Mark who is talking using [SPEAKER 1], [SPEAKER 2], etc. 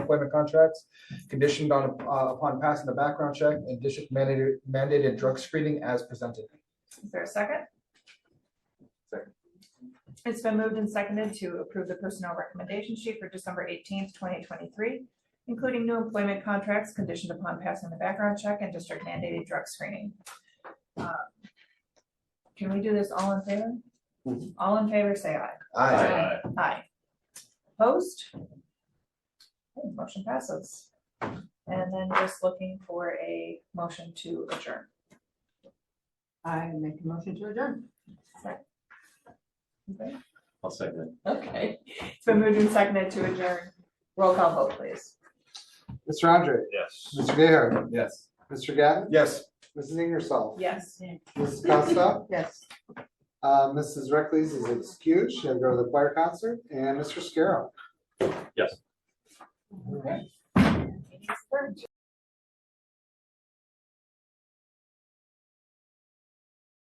[SPEAKER 1] employment contracts conditioned on, uh, upon passing the background check and district mandated, mandated drug screening as presented.
[SPEAKER 2] Is there a second?
[SPEAKER 1] Second.
[SPEAKER 2] It's been moved and seconded to approve the personnel recommendation sheet for December eighteenth, twenty twenty-three, including new employment contracts conditioned upon passing the background check and district mandated drug screening. Um, Can we do this all in favor? All in favor, say aye.
[SPEAKER 1] Aye.
[SPEAKER 2] Aye. Opposed? Okay, Motion passes. And then just looking for a motion to adjourn.
[SPEAKER 3] I make a motion to adjourn.
[SPEAKER 2] Okay.
[SPEAKER 4] I'll second it.
[SPEAKER 2] Okay, it's been moved and seconded to adjourn. Roll call vote, please.
[SPEAKER 5] Mr. Andre,
[SPEAKER 4] Yes.
[SPEAKER 5] Mr. Gayheart,
[SPEAKER 1] Yes.
[SPEAKER 5] Mr. Gavin,
[SPEAKER 1] Yes.
[SPEAKER 5] Mrs. Ingersoll,
[SPEAKER 2] Yes.
[SPEAKER 5] Mrs. Costa,
[SPEAKER 3] Yes.
[SPEAKER 5] uh, Mrs. Reckles is excused, she'll go to the choir concert, and Mr. Scarrow.
[SPEAKER 4] Yes.
[SPEAKER 2] Okay.